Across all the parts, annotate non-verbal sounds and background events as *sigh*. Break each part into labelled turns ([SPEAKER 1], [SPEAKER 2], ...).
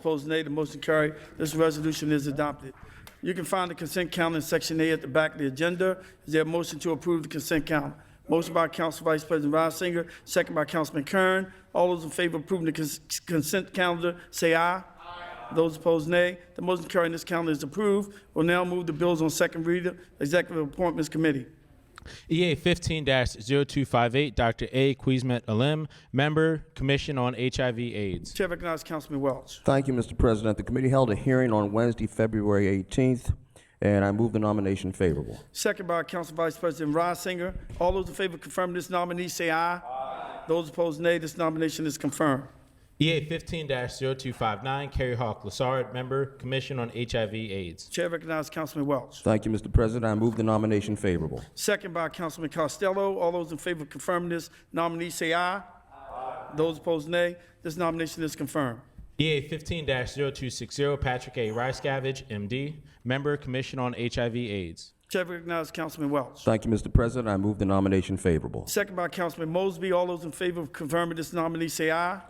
[SPEAKER 1] Opposed, nay. The motion carried. This resolution is adopted. You can find the consent calendar in Section A at the back of the agenda. Is there a motion to approve the consent calendar? Motion by Council Vice President Reisinger, second by Councilman Kern. All those in favor of approving the cons- consent calendar, say aye. Those opposed, nay. The motion carried. This calendar is approved. We'll now move the bills on second reader. Executive Appointments Committee.
[SPEAKER 2] EA 15 0258, Dr. A. Quizmet Alim, Member, Commission on HIV AIDS.
[SPEAKER 1] Chair recognizes Councilman Welch.
[SPEAKER 3] Thank you, Mr. President. The committee held a hearing on Wednesday, February 18th, and I move the nomination favorable.
[SPEAKER 1] Second by Council Vice President Reisinger. All those in favor of confirming this nominee, say aye. Those opposed, nay. This nomination is confirmed.
[SPEAKER 2] EA 15 0259, Kerry Hawk Lassard, Member, Commission on HIV AIDS.
[SPEAKER 1] Chair recognizes Councilman Welch.
[SPEAKER 3] Thank you, Mr. President. I move the nomination favorable.
[SPEAKER 1] Second by Councilman Costello. All those in favor of confirming this nominee, say aye. Those opposed, nay. This nomination is confirmed.
[SPEAKER 2] EA 15 0260, Patrick A. Ricegavage, MD, Member, Commission on HIV AIDS.
[SPEAKER 1] Chair recognizes Councilman Welch.
[SPEAKER 3] Thank you, Mr. President. I move the nomination favorable.
[SPEAKER 1] Second by Councilman Mosby. All those in favor of confirming this nominee, say aye.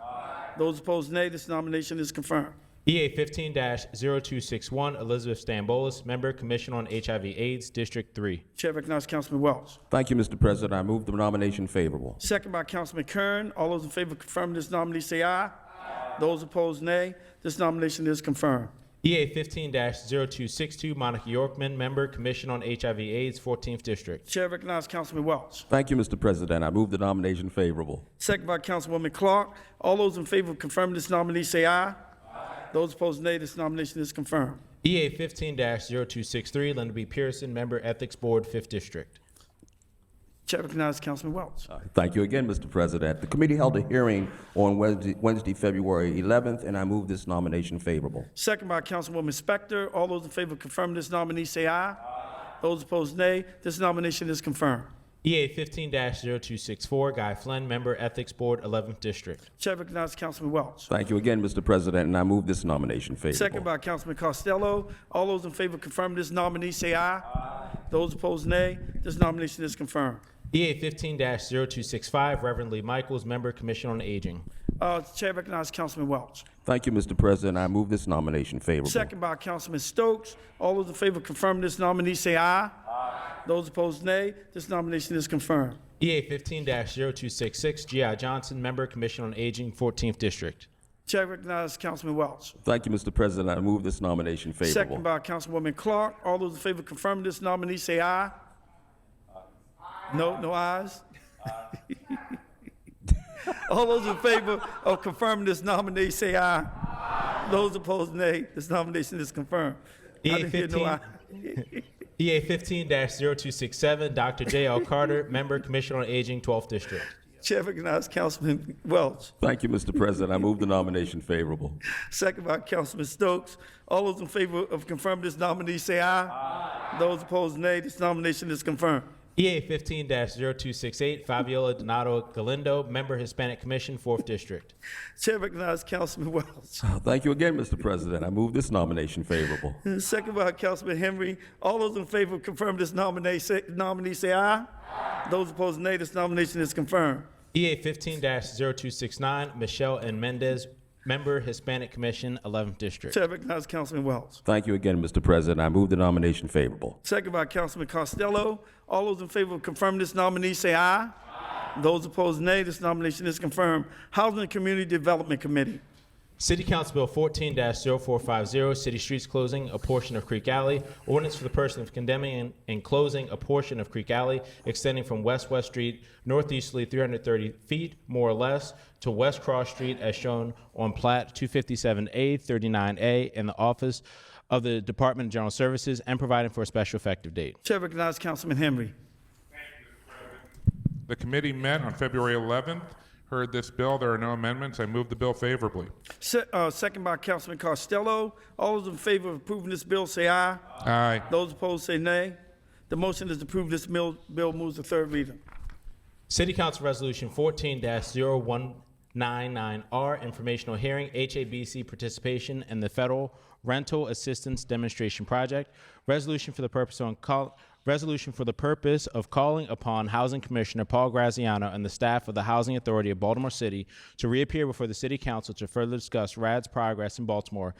[SPEAKER 1] Those opposed, nay. This nomination is confirmed.
[SPEAKER 2] EA 15 0261, Elizabeth Stambolis, Member, Commission on HIV AIDS, District 3.
[SPEAKER 1] Chair recognizes Councilman Welch.
[SPEAKER 3] Thank you, Mr. President. I move the nomination favorable.
[SPEAKER 1] Second by Councilman Kern. All those in favor of confirming this nominee, say aye. Those opposed, nay. This nomination is confirmed.
[SPEAKER 2] EA 15 0262, Monica Yorkman, Member, Commission on HIV AIDS, 14th District.
[SPEAKER 1] Chair recognizes Councilman Welch.
[SPEAKER 3] Thank you, Mr. President. I move the nomination favorable.
[SPEAKER 1] Second by Councilwoman Clark. All those in favor of confirming this nominee, say aye. Those opposed, nay. This nomination is confirmed.
[SPEAKER 2] EA 15 0263, Linda B. Pearson, Member, Ethics Board, 5th District.
[SPEAKER 1] Chair recognizes Councilman Welch.
[SPEAKER 3] Thank you again, Mr. President. The committee held a hearing on Wednesday, Wednesday, February 11th, and I move this nomination favorable.
[SPEAKER 1] Second by Councilwoman Spector. All those in favor of confirming this nominee, say aye. Those opposed, nay. This nomination is confirmed.
[SPEAKER 2] EA 15 0264, Guy Flynn, Member, Ethics Board, 11th District.
[SPEAKER 1] Chair recognizes Councilman Welch.
[SPEAKER 3] Thank you again, Mr. President, and I move this nomination favorable.
[SPEAKER 1] Second by Councilman Costello. All those in favor of confirming this nominee, say aye. Those opposed, nay. This nomination is confirmed.
[SPEAKER 2] EA 15 0265, Reverend Lee Michaels, Member, Commission on Aging.
[SPEAKER 1] Uh, Chair recognizes Councilman Welch.
[SPEAKER 3] Thank you, Mr. President. I move this nomination favorable.
[SPEAKER 1] Second by Councilman Stokes. All those in favor of confirming this nominee, say aye. Those opposed, nay. This nomination is confirmed.
[SPEAKER 2] EA 15 0266, G.I. Johnson, Member, Commission on Aging, 14th District.
[SPEAKER 1] Chair recognizes Councilman Welch.
[SPEAKER 3] Thank you, Mr. President. I move this nomination favorable.
[SPEAKER 1] Second by Councilwoman Clark. All those in favor of confirming this nominee, say aye. No, no ayes? *laughs* All those in favor of confirming this nominee, say aye. Those opposed, nay. This nomination is confirmed. I
[SPEAKER 2] EA
[SPEAKER 1] didn't hear no aye.
[SPEAKER 2] 15. EA 15 0267, Dr. J.L. Carter, *laughs* Member, Commission on Aging, 12th District.
[SPEAKER 1] Chair recognizes Councilman Welch.
[SPEAKER 3] Thank you, Mr. President. I move the nomination favorable.
[SPEAKER 1] Second by Councilman Stokes. All those in favor of confirming this nominee, say aye. Those opposed, nay. This nomination is confirmed.
[SPEAKER 2] EA 15 0268, Fabiola Donato Galindo, Member, Hispanic Commission, 4th District.
[SPEAKER 1] Chair recognizes Councilman Welch.
[SPEAKER 3] Thank you again, Mr. President. I move this nomination favorable.
[SPEAKER 1] Second by Councilman Henry. All those in favor of confirming this nominee say, nominee, say aye. Those opposed, nay. This nomination is confirmed.
[SPEAKER 2] EA 15 0269, Michelle and Mendez, Member, Hispanic Commission, 11th District.
[SPEAKER 1] Chair recognizes Councilman Wells.
[SPEAKER 3] Thank you again, Mr. President. I move the nomination favorable.
[SPEAKER 1] Second by Councilman Costello. All those in favor of confirming this nominee, say aye. Those opposed, nay. This nomination is confirmed. Housing and Community Development Committee.
[SPEAKER 2] City Council Bill 14 0450, City Streets Closing a Portion of Creek Alley, Ordinance for the Person of Condemning and, and Closing a Portion of Creek Alley, extending from West West Street northeasterly 330 feet, more or less, to West Cross Street as shown on Plat 257A, 39A, in the Office of the Department of General Services, and providing for a special effective date.
[SPEAKER 1] Chair recognizes Councilman Henry.
[SPEAKER 4] The committee met on February 11th, heard this bill. There are no amendments. I move the bill favorably.
[SPEAKER 1] Se- uh, second by Councilman Costello. All those in favor of approving this bill, say aye.
[SPEAKER 4] Aye.
[SPEAKER 1] Those opposed, say nay. The motion is approved. This mil- bill moves to third reader.
[SPEAKER 2] City Council Resolution 14 01 99R, informational hearing, HABC participation, and the Federal Rental Assistance Demonstration Project. Resolution for the purpose on call, resolution for the purpose of calling upon Housing Commissioner Paul Graziano and the staff of the Housing Authority of Baltimore City to reappear before the City Council to further discuss RAD's progress in Baltimore